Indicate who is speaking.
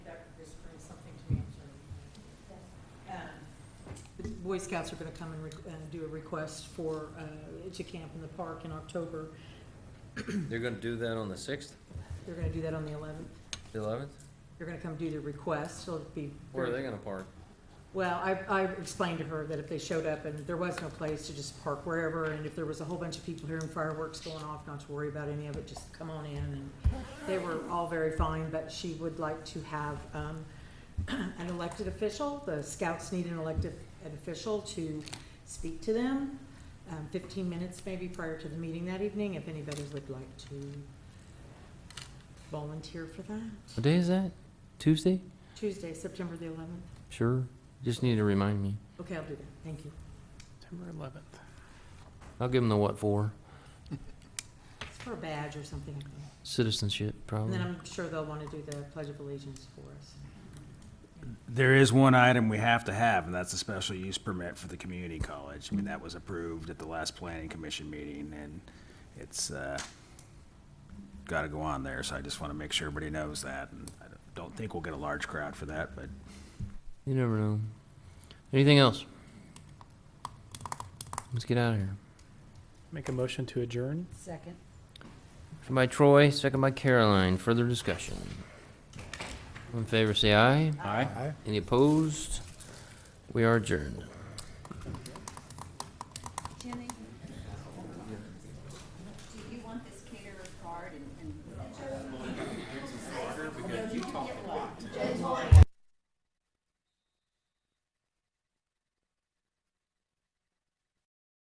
Speaker 1: Um, Boy Scouts are gonna come and, re- and do a request for, uh, to camp in the park in October.
Speaker 2: They're gonna do that on the sixth,
Speaker 1: They're gonna do that on the eleventh.
Speaker 2: the eleventh?
Speaker 1: They're gonna come do their request, so it'll be.
Speaker 2: Where are they gonna park?
Speaker 1: Well, I, I explained to her that if they showed up and there was no place to just park wherever, and if there was a whole bunch of people here and fireworks going off, not to worry about any of it, just come on in, and they were all very fine, but she would like to have, um, an elected official, the scouts need an elected an official to speak to them, um, fifteen minutes maybe prior to the meeting that evening, if anybody would like to volunteer for that.
Speaker 3: What day is that? Tuesday?
Speaker 1: Tuesday, September the eleventh,
Speaker 3: Sure. Just need to remind me.
Speaker 1: okay, I'll do that, thank you.
Speaker 4: September 11th.
Speaker 3: I'll give them the what for.
Speaker 1: It's for a badge or something. I think.
Speaker 3: Citizenship,
Speaker 1: And
Speaker 3: probably.
Speaker 1: then I'm sure they'll want to do the Pledge of Allegiance for us.
Speaker 4: There is one item we have to have, and that's a special use permit for the community college. I mean, that was approved at the last planning commission meeting, and it's, uh, gotta go on there, so I just wanna make sure everybody knows that. And I don't think we'll get a large crowd for that, but
Speaker 3: You never know. Anything else? Let's get out of here.
Speaker 5: Make a motion to adjourn?
Speaker 1: Second.
Speaker 3: Motion by Troy, second by Caroline. Further discussion. All in favor, say aye.
Speaker 5: Aye.
Speaker 3: Any opposed? We are adjourned.